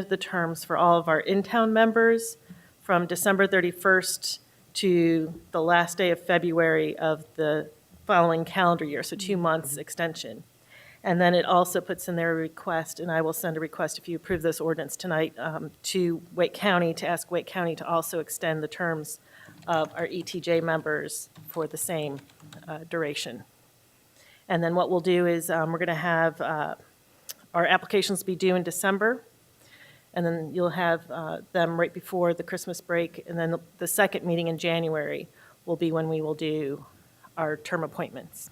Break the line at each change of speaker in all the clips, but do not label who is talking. extend the terms for all of our in-town members from December 31st to the last day of February of the following calendar year, so two months extension. And then it also puts in their request, and I will send a request if you approve this ordinance tonight, um, to Wake County, to ask Wake County to also extend the terms of our ETJ members for the same uh, duration. And then what we'll do is, um, we're going to have uh, our applications be due in December, and then you'll have uh, them right before the Christmas break, and then the second meeting in January will be when we will do our term appointments.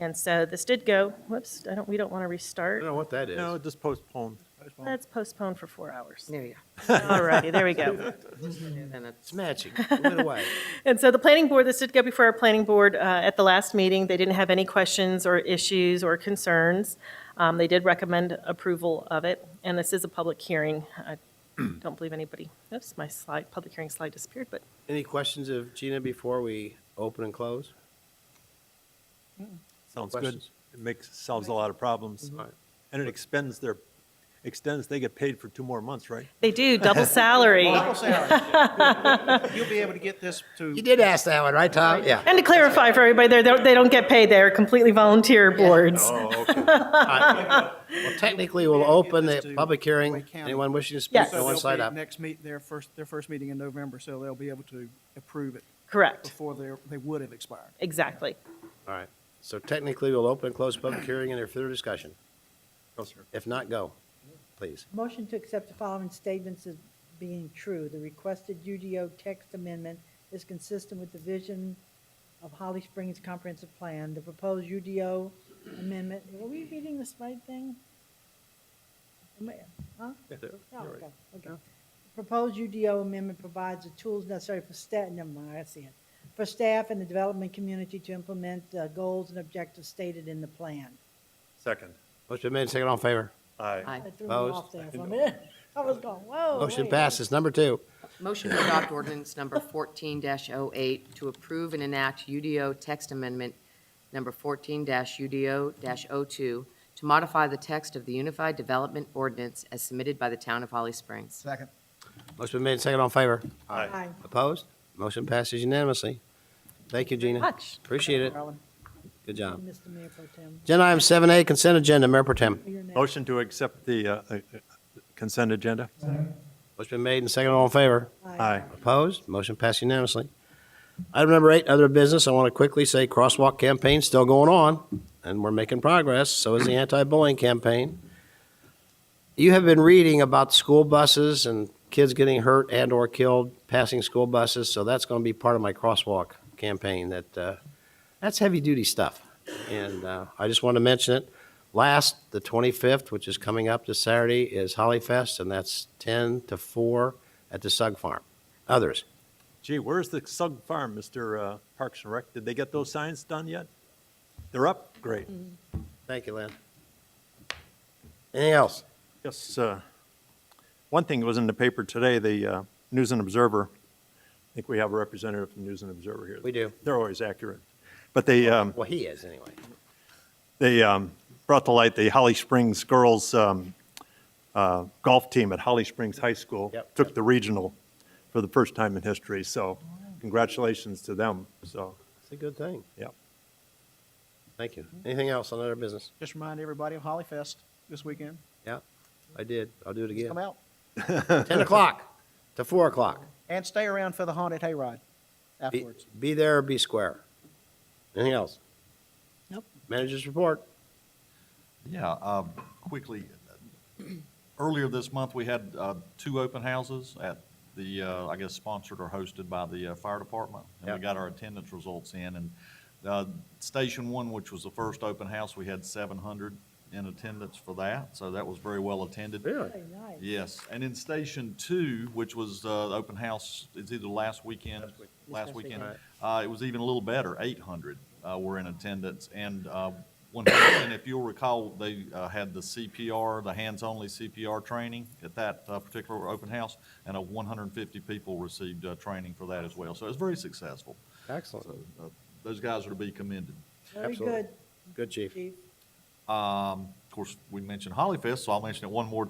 And so this did go, whoops, I don't, we don't want to
I
restart.
don't know what that is.
No, just postpone.
Let's postpone for four hours.
There you
All righty, there we go.
go. And it's-
It's magic. It went away.
And so the planning board, this did go before our planning board uh, at the last meeting. They didn't have any questions or issues or concerns. Um, They did recommend approval of it, and this is a public hearing. I don't believe anybody, oops, my slide, public hearing slide disappeared, but
Any questions of Gina before we open and close?
Sounds good.
Questions?
It makes, solves a lot of problems.
All right.
And it expends their, extends, they get paid for two more months, right?
they do, double salary.
Well, Sarah, You'll be able to get this to.
You did ask that one, right, Tom? Yeah.
And to clarify for everybody, they're- they're- they don't get paid, they're completely volunteer boards.
Well, technically, we'll open
Get this
the
to
public hearing.
Wake County.
Anyone wishing to
Yes.
speak,
So
no one
they'll
slide
be
up.
Next meet, their first, their first meeting in November, so they'll be able to approve it
Correct,
before they, they would have expired.
exactly.
All right. So technically, we'll open and close public hearing and there further discussion.
No, sir.
If not, go, please.
Motion to accept the following statements as being true. The requested UDO text amendment is consistent with the vision of Holly Springs Comprehensive Plan. The proposed UDO amendment, are we reading this right thing? Am I- Huh? Oh, okay, okay. Proposed UDO amendment provides the tools necessary for staff, never mind, I see it, for staff and the development community to implement the goals and objectives stated in the plan.
Second.
Motion been made, second all in favor.
Aye.
I threw me off there for a minute. I was going, whoa.
Motion
wait.
passes. Number two.
Motion to adopt ordinance number fourteen 8 to approve and enact UDO text amendment number fourteen UDO 2 to modify the text of the Unified Development Ordinance as submitted by the town of Holly Springs.
Second.
Motion been made, second all in favor.
Aye.
Opposed? Motion passes unanimously. Thank you, Gina.
Much.
Appreciate it.
Alan,
Good job.
Mr. Mayor Pro Tem,
Agenda item seven A, consent agenda. Mayor Pro Tem.
you're next.
Motion to accept the uh, uh, consent agenda?
Motion been made and second all in favor.
Aye.
Opposed? Motion passed unanimously. Item number eight, other business. I want to quickly say crosswalk campaign's still going on, and we're making progress. So is the anti-bullying campaign. You have been reading about school buses and kids getting hurt and/or killed passing school buses, so that's going to be part of my crosswalk campaign. That uh, that's heavy-duty stuff, and uh, I just want to mention it. Last, the 25th, which is coming up this Saturday, is Holly Fest, and that's 10 to 4 at the Sug Farm. Others?
Gee, where's the Sug Farm, Mr. uh, Parks and Rec? Did they get those signs done yet? They're up? Great.
Thank you, Lynn. Anything else?
Yes, uh, one thing was in the paper today, the uh, News and Observer, I think we have a representative from News and Observer here.
We do.
They're always accurate. But they, um,
Well, he is, anyway.
they um, brought to light the Holly Springs girls um, uh, golf team at Holly Springs High School.
Yep.
Took the regional for the first time in history, so congratulations to them, so,
It's a good thing.
yeah.
Thank you.
Mm-hmm.
Anything else on other business?
Just remind everybody of Holly Fest this weekend.
Yeah, I did. I'll do it again.
Come out
Ten o'clock to four o'clock.
and stay around for the haunted hayride
Be,
afterwards.
be there or be square. Anything else?
Nope.
Managers report.
Yeah, um, quickly, earlier this month, we had uh, two open houses at the, uh, I guess sponsored or hosted by the uh, fire department. And
Yeah.
we got our attendance results in, and uh, Station One, which was the first open house, we had 700 in attendance for that, so that was very well attended.
Very nice.
Yes, and in Station Two, which was uh, the open house, it's either last weekend, last weekend, uh, it was even a little better, eight hundred uh, were in attendance. And uh, one thing, and if you'll recall, they uh, had the CPR, the hands-only CPR training at that uh, particular open house, and uh, one hundred and fifty people received uh, training for that as well. So it was very successful.
Excellent.
So uh, those guys are to be commended.
Very
Absolutely.
good,
Good, chief.
Chief.
Um, Of course, we mentioned Hollyfest, so I'll mention it one more time.